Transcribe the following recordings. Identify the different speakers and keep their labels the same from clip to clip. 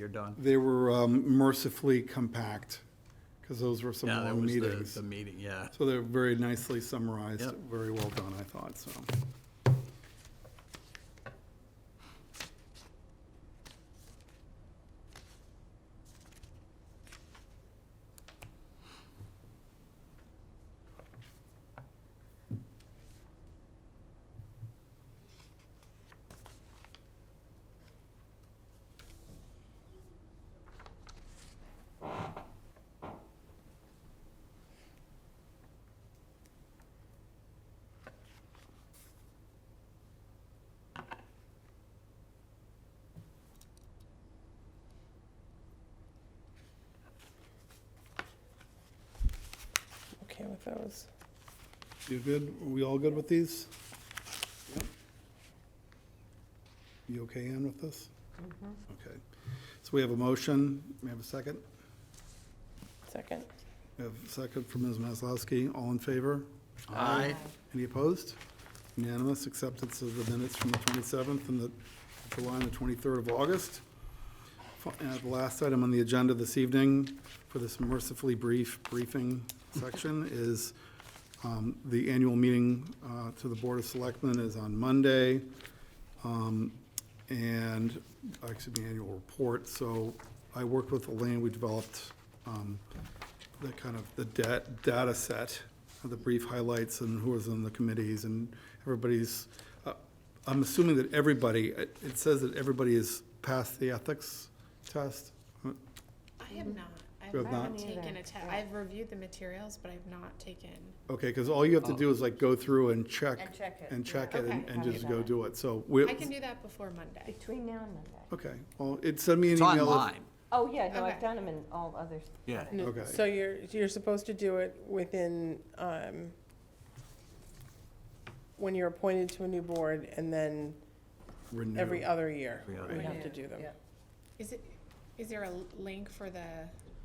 Speaker 1: You're done.
Speaker 2: They were um, mercifully compact, because those were some
Speaker 1: Yeah, that
Speaker 2: long
Speaker 1: was the,
Speaker 2: meetings.
Speaker 1: the meeting, yeah.
Speaker 2: So they're very nicely summarized,
Speaker 1: Yep.
Speaker 2: very well done, I thought, so.
Speaker 3: Okay with those.
Speaker 2: You good? Are we all good with these? Yep. You okay, Ann, with this? Okay. So we have a motion. We have a second.
Speaker 3: Second.
Speaker 2: We have a second from Ms. Maslowski. All in favor?
Speaker 1: Aye.
Speaker 2: Any opposed? Unanimous acceptance of the minutes from the 27th and the July and the 23rd of August. Fi- And the last item on the agenda this evening for this mercifully brief briefing section is um, the annual meeting uh, to the Board of Selectmen is on Monday. Um, And, actually, the annual report, so I worked with Elaine, we developed um, the kind of the da- data set, the brief highlights and who was on the committees and everybody's, uh, I'm assuming that everybody, it it says that everybody has passed the ethics test. Uh,
Speaker 4: I have not.
Speaker 2: You have
Speaker 4: I've
Speaker 2: not?
Speaker 4: not taken a test. I've reviewed the materials, but I've not taken.
Speaker 2: Okay, because all you have to do is like go through and check.
Speaker 5: And check it,
Speaker 2: And
Speaker 5: yeah.
Speaker 2: check it and
Speaker 4: Okay.
Speaker 2: and just
Speaker 5: Copy
Speaker 2: go
Speaker 5: that.
Speaker 2: do it. So we,
Speaker 4: I can do that before Monday.
Speaker 5: Between now and Monday.
Speaker 2: okay, well, it sent me an
Speaker 1: It's
Speaker 2: email. if-
Speaker 1: online.
Speaker 5: Oh, yeah, no, I've
Speaker 4: Okay.
Speaker 5: done them in all others.
Speaker 1: Yeah.
Speaker 3: No,
Speaker 2: Okay.
Speaker 3: So you're, you're supposed to do it within, um, when you're appointed to a new board, and then
Speaker 2: Renew.
Speaker 3: every other year,
Speaker 1: Every other
Speaker 3: we
Speaker 1: year.
Speaker 3: have to do them.
Speaker 4: Is it, is there a link for the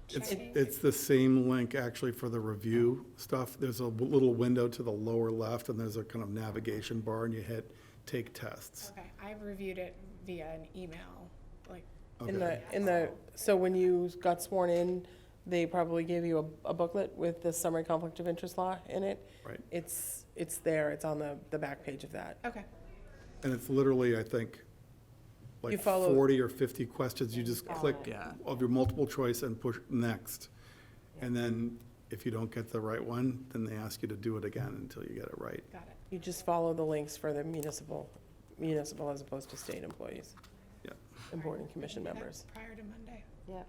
Speaker 2: It's,
Speaker 4: checking?
Speaker 2: it's the same link actually for the review stuff. There's a w- little window to the lower left and there's a kind of navigation bar and you hit take tests.
Speaker 4: Okay, I've reviewed it via an email, like,
Speaker 3: In
Speaker 2: Okay.
Speaker 3: the, in the, so when you got sworn in, they probably gave you a- a booklet with the summary conflict of interest law in it.
Speaker 2: Right.
Speaker 3: It's, it's there, it's on the, the back page of that.
Speaker 4: okay,
Speaker 2: And it's literally, I think,
Speaker 3: You
Speaker 2: like
Speaker 3: follow-
Speaker 2: 40 or 50 questions. You just click
Speaker 1: Yeah.
Speaker 2: of your multiple choice and push next. And then if you don't get the right one, then they ask you to do it again until you get it right.
Speaker 4: got it.
Speaker 3: You just follow the links for the municipal, municipal as opposed to state employees
Speaker 2: Yeah.
Speaker 3: and board and commission
Speaker 4: That-
Speaker 3: members.
Speaker 4: Prior to Monday.
Speaker 5: Yeah.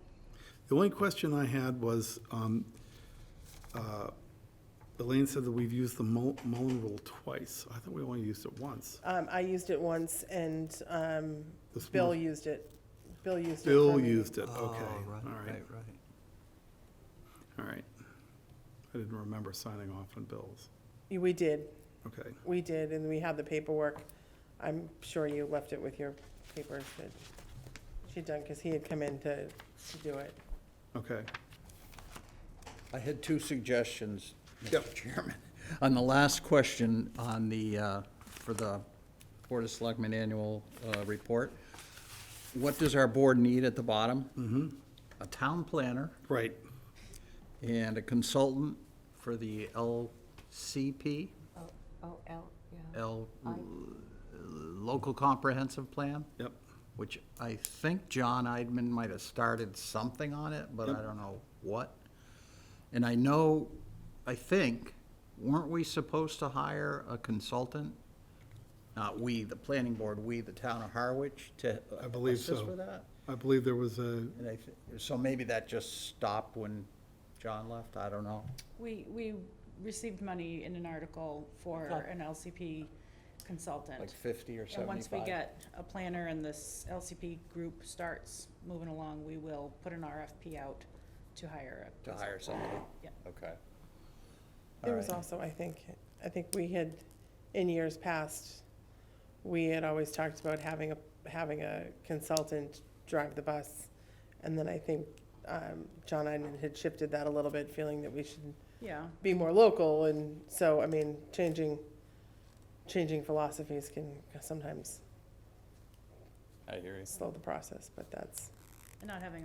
Speaker 2: The only question I had was, um, uh, Elaine said that we've used the Mul- Mullen rule twice. I thought we only used it once.
Speaker 3: Um, I used it once and, um,
Speaker 2: This
Speaker 3: Bill
Speaker 2: must-
Speaker 3: used it. Bill used it. for
Speaker 2: Bill
Speaker 3: me.
Speaker 2: used it, okay,
Speaker 1: Oh,
Speaker 2: all
Speaker 1: right,
Speaker 2: right,
Speaker 1: Right, right.
Speaker 2: all right. I didn't remember signing off on bills,
Speaker 3: We did,
Speaker 2: okay.
Speaker 3: we did, and we had the paperwork. I'm sure you left it with your papers that she'd done, because he had come in to, to do it.
Speaker 2: Okay,
Speaker 6: I had two suggestions,
Speaker 2: Yep.
Speaker 6: Mr. Chairman. On the last question on the, uh, for the Board of Selectmen Annual uh, Report, what does our board need at the bottom? Mm-hmm. A town planner
Speaker 2: right,
Speaker 6: and a consultant for the LCP,
Speaker 5: Oh, L, yeah.
Speaker 6: L, Local Comprehensive Plan,
Speaker 2: yep,
Speaker 6: which I think John Eidman might have started something on it, but I
Speaker 2: Yep.
Speaker 6: don't know what. And I know, I think, weren't we supposed to hire a consultant? Not we, the planning board, we, the town of Harwich, to
Speaker 2: I believe
Speaker 6: assist
Speaker 2: so.
Speaker 6: with that?
Speaker 2: I believe there was a,
Speaker 6: And I thi- So maybe that just stopped when John left, I don't know.
Speaker 7: We, we received money in an article for an LCP
Speaker 6: Like
Speaker 7: consultant.
Speaker 6: 50 or 75?
Speaker 7: And once we get a planner and this LCP group starts moving along, we will put an RFP out to hire a
Speaker 6: To hire somebody?
Speaker 7: Yep.
Speaker 6: Okay.
Speaker 3: There
Speaker 6: All
Speaker 3: was
Speaker 6: right.
Speaker 3: also, I think, I think we had, in years past, we had always talked about having a, having a consultant drive the bus. And then I think um, John Iden had shifted that a little bit, feeling that we should
Speaker 7: Yeah,
Speaker 3: be more local. And so, I mean, changing, changing philosophies can sometimes
Speaker 6: I hear you.
Speaker 3: slow the process, but that's,
Speaker 7: and not having a